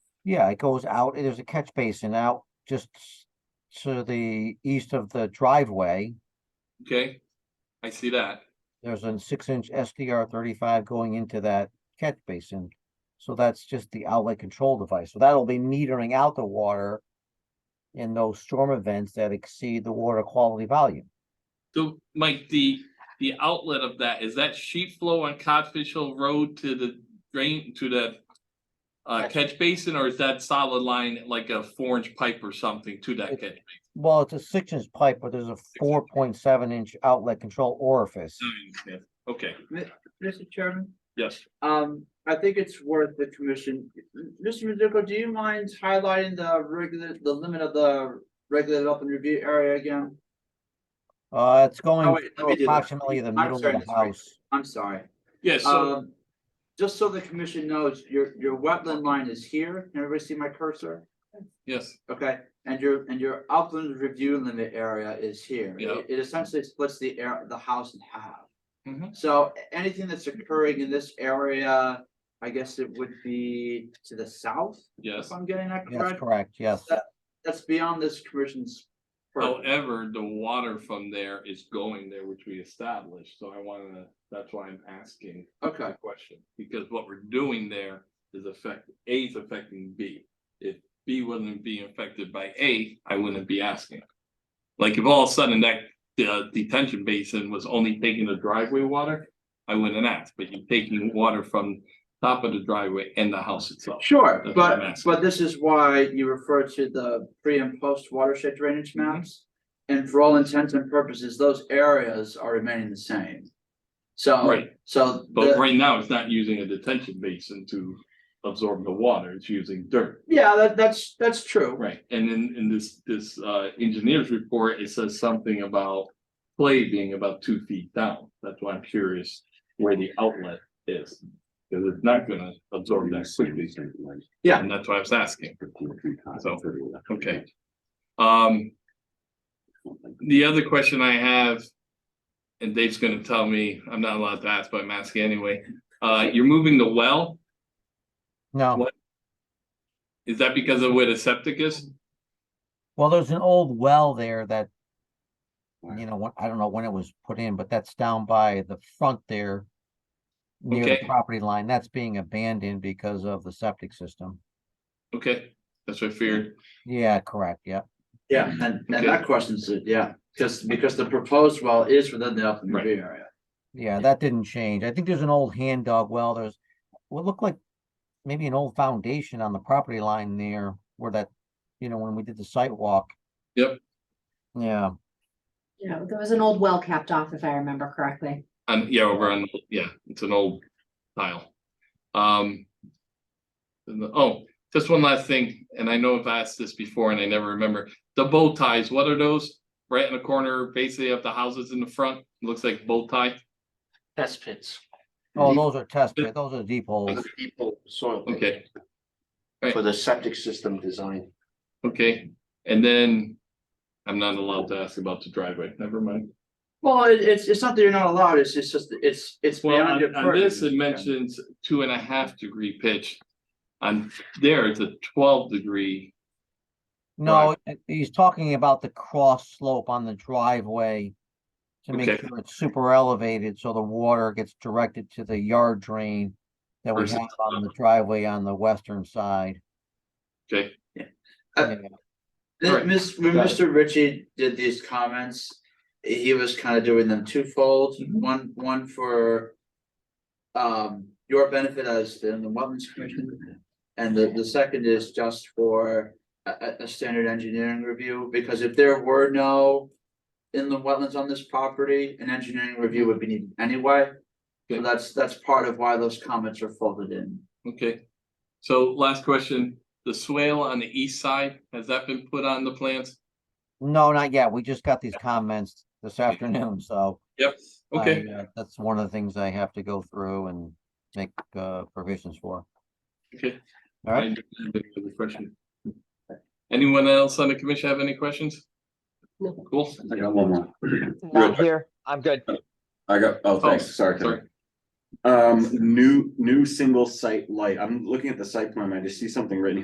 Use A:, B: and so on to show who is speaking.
A: Yeah, it goes out, there's a catch basin out just s- to the east of the driveway.
B: Okay, I see that.
A: There's a six inch SDR thirty-five going into that catch basin. So that's just the outlet control device. So that'll be metering out the water in those storm events that exceed the water quality volume.
B: So, Mike, the, the outlet of that, is that sheet flow on Codfish Hill Road to the drain, to the uh,
A: Yes.
B: catch basin, or is that solid line like a four inch pipe or something to that catch?
A: Well, it's a six inch pipe, but there's a four point seven inch outlet control orifice.
B: basin? Okay,
C: Mr. Chairman,
B: yes.
C: um, I think it's worth the commission. Mr. Mizuko, do you mind highlighting the regular, the limit of the regulated open review area again?
A: Uh, it's going
C: wait, let
A: through
C: me do that.
A: approximately the
C: I'm
A: middle of
C: sorry,
A: the
C: that's right.
A: house.
C: I'm sorry.
B: Yeah, so,
C: Um, just so the commission knows, your, your wetland line is here. Can everybody see my cursor?
B: yes,
C: Okay, and your, and your upland review limit area is here.
B: Yeah.
C: It- It essentially splits the air, the house in half.
B: Mhm.
C: So a- anything that's occurring in this area, I guess it would be to the south, if
B: yes.
C: I'm getting that
A: That's
C: correct.
A: correct, yes.
C: That- That's beyond this commission's. purview.
B: However, the water from there is going there, which we established, so I wanna, that's why I'm asking
C: Okay,
B: the question. Because what we're doing there is affect, A is affecting B. If B wasn't being affected by A, I wouldn't be asking. Like if all of a sudden that uh, detention basin was only taking the driveway water, I wouldn't ask, but you're taking water from top of the driveway and the house itself.
C: sure,
B: That's what I'm
C: but,
B: asking.
C: but this is why you refer to the pre and post watershed drainage
B: Mm-hmm.
C: maps. And for all intents and purposes, those areas are remaining the same. So,
B: Right.
C: so. the-
B: But right now, it's not using a detention basin to absorb the water, it's using dirt.
C: Yeah, that, that's, that's true.
B: Right, and in, in this, this, uh, engineer's report, it says something about clay being about two feet down. That's why I'm curious where the outlet is, because it's not gonna absorb that quickly.
C: Yeah.
B: And that's why I was asking. So,
D: okay.
B: okay. Um, the other question I have, and Dave's gonna tell me, I'm not allowed to ask, but I'm asking anyway. Uh, you're moving the well,
A: No.
B: is that because of where the septic is?
A: Well, there's an old well there that,
D: Right.
A: you know, when- I don't know when it was put in, but that's down by the front there. Near the
B: Okay.
A: property line, that's being abandoned because of the septic system.
B: Okay, that's what I feared.
A: Yeah, correct, yeah.
C: Yeah, and, and
B: Okay.
C: that question's, it, yeah, because, because the proposed well is within the upland
B: Right.
C: review area.
A: Yeah, that didn't change. I think there's an old hand dog well, there's what looked like maybe an old foundation on the property line there where that, you know, when we did the site walk.
B: Yep.
A: Yeah,
E: You know, there was an old well capped off, if I remember correctly.
B: And yeah, over on, yeah, it's an old tile. Um. and the- oh, just one last thing, and I know I've asked this before and I never remember. The bow ties, what are those? Right in the corner, basically of the houses in the front, looks like bow tie.
F: test pits.
A: oh, those are test pit, those are deep holes.
F: People soil. pit
B: Okay,
F: For the septic system design.
B: okay, and then. I'm not allowed to ask about the driveway, never mind.
C: Well, it, it's, it's not that you're not allowed, it's, it's just, it's, it's
B: Well,
C: beyond your
B: on, on
C: purview.
B: this, it mentions two and a half degree pitch. On there, it's a twelve degree,
A: No, uh, he's talking about the cross slope on the driveway to make
B: Okay.
A: sure it's super elevated, so the water gets directed to the yard drain that we
B: Versus-
A: have on the driveway on the western side.
B: okay,
C: Uh,
A: Yeah.
C: Then
B: Right.
C: Miss, when
B: Got it.
C: Mr. Ritchie did these comments, he was kind of doing them twofold,
B: Mhm.
C: one, one for. Um, your benefit as in the Wetlands Commission, and the, the second is just for a, a, a standard engineering review, because if there were no. In the wetlands on this property, an engineering review would be needed anyway, so
B: Okay.
C: that's, that's part of why those comments are folded in.
B: okay. So last question, the swale on the east side, has that been put on the plans?
A: No, not yet. We just got these comments this afternoon, so
B: Yep. Okay,
A: I, uh, that's one of the things I have to go through and make, uh, provisions for.
B: okay.
A: All right,
B: I don't have any other question. Anyone else on the commission have any questions?
E: No.
B: Cool.
D: I got one more.
G: I'm here. I'm good.
D: I got, oh, thanks, sorry. Kevin. Um, new, new single site light, I'm looking at the site plan, I just see something written